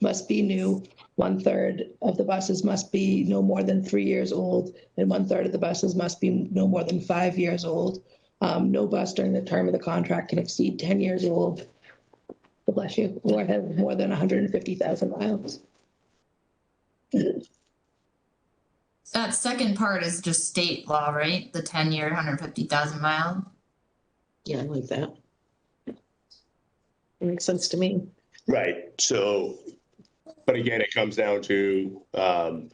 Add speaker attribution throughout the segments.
Speaker 1: must be new. One-third of the buses must be no more than three years old, and one-third of the buses must be no more than five years old. Um, no bus during the term of the contract can exceed ten years old. God Bless you, or have more than hundred and fifty thousand miles.
Speaker 2: That second part is just state law, right? The ten year, hundred fifty thousand mile.
Speaker 3: Yeah, I like that. It makes sense to me.
Speaker 4: Right, so, but again, it comes down to, um,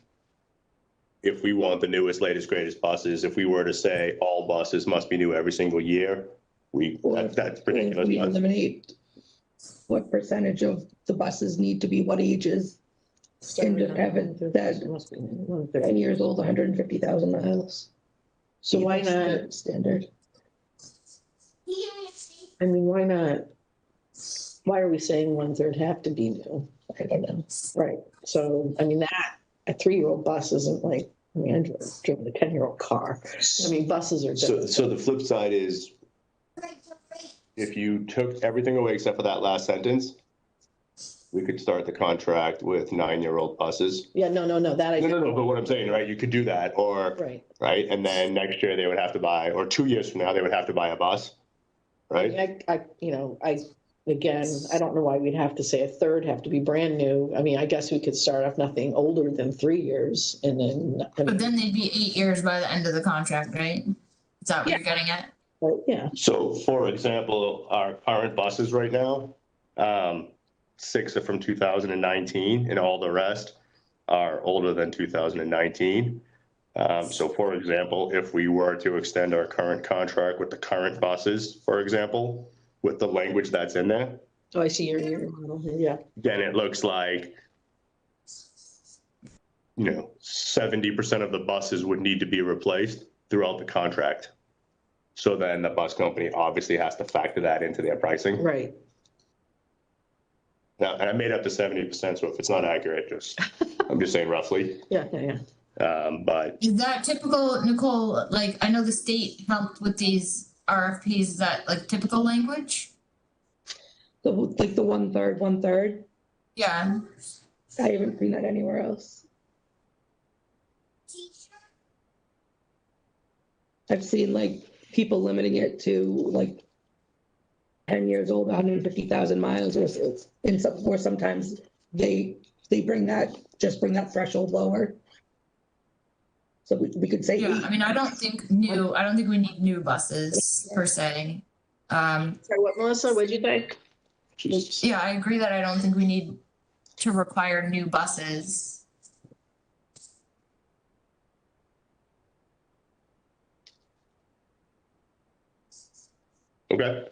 Speaker 4: if we want the newest, latest, greatest buses, if we were to say all buses must be new every single year, we, that- that's ridiculous.
Speaker 1: We eliminate what percentage of the buses need to be what ages, And to have it that- ten years old, hundred and fifty thousand miles.
Speaker 3: So why
Speaker 1: That's
Speaker 3: not-
Speaker 1: Standard.
Speaker 3: I mean, why not? Why are we saying one third have to be new?
Speaker 1: I don't know.
Speaker 3: Right, so, I mean, that, a three-year-old bus isn't like, I mean, I drove driven a ten-year-old car. I mean, buses are
Speaker 4: So,
Speaker 3: different.
Speaker 4: so the flip side is, if you took everything away except for that last sentence, we could start the contract with nine-year-old buses.
Speaker 3: Yeah, no, no, no, that I.
Speaker 4: No, no,
Speaker 3: didn't-
Speaker 4: no, but what I'm saying, right, you could do that, or,
Speaker 3: Right,
Speaker 4: right, and then next year they would have to buy, or two years from now, they would have to buy a bus, right?
Speaker 3: I, I, you know, I, again, I don't know why we'd have to say a third have to be brand new. I mean, I guess we could start off nothing older than three years and then.
Speaker 2: But then they'd be eight years by the end of the contract, right? Is that what you're getting at?
Speaker 3: Well, Yeah,
Speaker 4: So for example, our current buses right now, um, six are from two thousand and nineteen and all the rest are older than two thousand and nineteen. Um, so for example, if we were to extend our current contract with the current buses, for example, with the language that's in there,
Speaker 3: oh, I see your, your model, here. yeah.
Speaker 4: then it looks like you know, seventy percent of the buses would need to be replaced throughout the contract. So then the bus company obviously has to factor that into their pricing.
Speaker 3: Right.
Speaker 4: Now, and I made up the seventy percent, so if it's not accurate, just, I'm just saying roughly.
Speaker 3: Yeah, yeah, yeah.
Speaker 4: Um, but
Speaker 2: Is that typical, Nicole? Like, I know the state helped with these RFPs. Is that like typical language?
Speaker 1: The, like the one-third, one-third,
Speaker 2: Yeah.
Speaker 1: I haven't seen that anywhere else. I've seen like people limiting it to like ten years old, hundred and fifty thousand miles or s- in some, or sometimes they, they bring that, just bring that threshold lower. So we, we could say
Speaker 2: Yeah.
Speaker 1: eight.
Speaker 2: I mean, I don't think new, I don't think we need new buses per se. Um,
Speaker 3: Sorry, what, Melissa, what'd you think?
Speaker 4: she's-
Speaker 2: yeah, I agree that I don't think we need to require new buses.
Speaker 4: okay,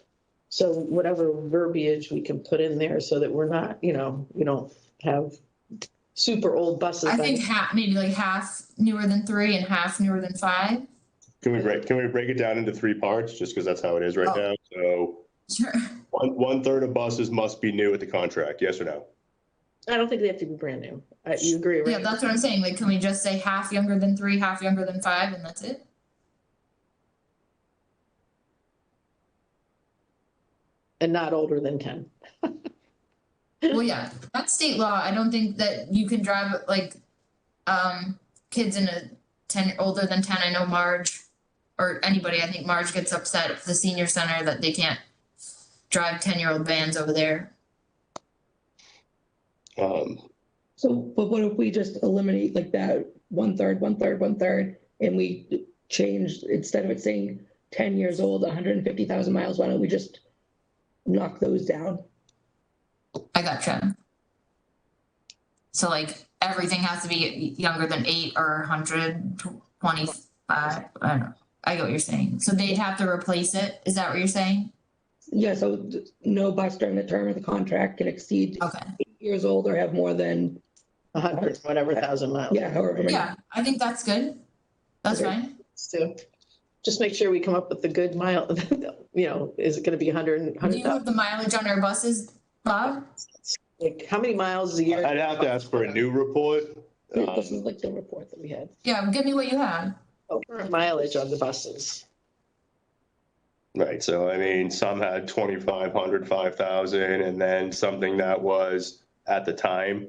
Speaker 3: So whatever verbiage we can put in there so that we're not, you know, we don't have super old buses.
Speaker 2: I think half, maybe like half newer than three and half newer than five.
Speaker 4: can we break, can we break it down into three parts, just because that's how it is right
Speaker 2: Oh.
Speaker 4: now? So
Speaker 2: Sure.
Speaker 4: one, one-third of buses must be new with the contract, yes or no?
Speaker 3: I don't think they have to be brand new. I- You agree, right?
Speaker 2: Yeah, that's what I'm saying. Like, can we just say half younger than three, half younger than five, and that's it?
Speaker 3: And not older than ten.
Speaker 2: Well, yeah, that's state law. I don't think that you can drive like um kids in a ten older than ten. I know Marge or anybody, I think Marge gets upset at the senior center that they can't drive ten year old vans over there.
Speaker 4: Um,
Speaker 1: So, but what if we just eliminate like that one-third, one-third, one-third, and we change, instead of it saying ten years old, hundred and fifty thousand miles, why don't we just knock those down?
Speaker 2: I gotcha. So like everything has to be younger than eight or hundred twenty-five. I don't know. I get what you're saying. So they'd have to replace it. Is that what you're saying?
Speaker 1: Yeah, so th- no bus during the term of the contract can exceed
Speaker 2: Okay.
Speaker 1: eight years old or have more than,
Speaker 3: A hundred, whatever thousand miles.
Speaker 1: yeah, however many.
Speaker 2: Yeah, I think that's good. That's
Speaker 1: Okay.
Speaker 2: fine.
Speaker 3: So just make sure we come up with the good mile, you know, is it gonna be a hundred and,
Speaker 2: Do
Speaker 3: hundred
Speaker 2: you have
Speaker 3: thousand?
Speaker 2: the mileage on our buses, Bob?
Speaker 3: Like, how many miles a year?
Speaker 4: I'd have to ask for a new report.
Speaker 1: Yeah, This is
Speaker 4: Um,
Speaker 1: like the report that we had.
Speaker 2: Yeah, give me what you have.
Speaker 3: Oh, Current mileage on the buses.
Speaker 4: Right, so I mean, some had 2,500, 5,000, and then something that was at the time